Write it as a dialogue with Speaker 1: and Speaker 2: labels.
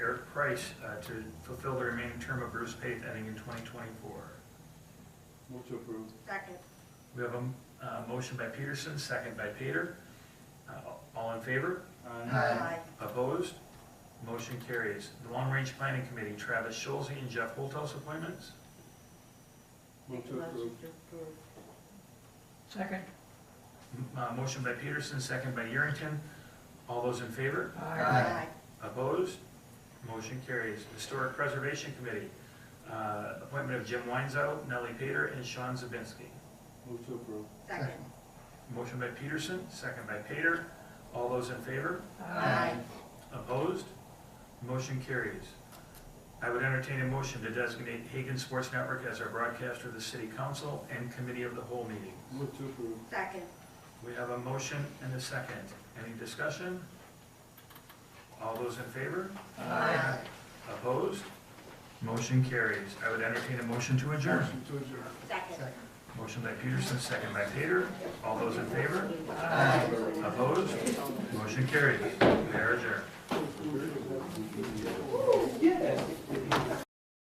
Speaker 1: Price uh, to fulfill the remaining term of Bruce Pate ending in 2024.
Speaker 2: Move to approve.
Speaker 3: Second.
Speaker 1: We have a m- uh, motion by Peterson, second by Pater. Uh, All in favor?
Speaker 3: Aye.
Speaker 1: Opposed? Motion carries. The Long Range Planning Committee, Travis Schulze and Jeff Holthouse appointments.
Speaker 2: Move to approve.
Speaker 4: Second.
Speaker 1: M- uh, Motion by Peterson, second by Yerington. All those in favor?
Speaker 3: Aye.
Speaker 1: Opposed? Motion carries. Historic Preservation Committee, uh, appointment of Jim Weinzel, Nellie Pater, and Sean Zabinski.
Speaker 2: Move to approve.
Speaker 3: Second.
Speaker 1: Motion by Peterson, second by Pater. All those in favor?
Speaker 3: Aye.
Speaker 1: Opposed? Motion carries. I would entertain a motion to designate Hagan Sports Network as our broadcaster of the City Council and Committee of the Whole meeting.
Speaker 2: Move to approve.
Speaker 3: Second.
Speaker 1: We have a motion and a second. Any discussion? All those in favor?
Speaker 3: Aye.
Speaker 1: Opposed? Motion carries. I would entertain a motion to adjourn.
Speaker 2: Motion to adjourn.
Speaker 3: Second.
Speaker 1: Motion by Peterson, second by Pater. All those in favor?
Speaker 4: Aye.
Speaker 1: Opposed? Motion carries. We are adjourned.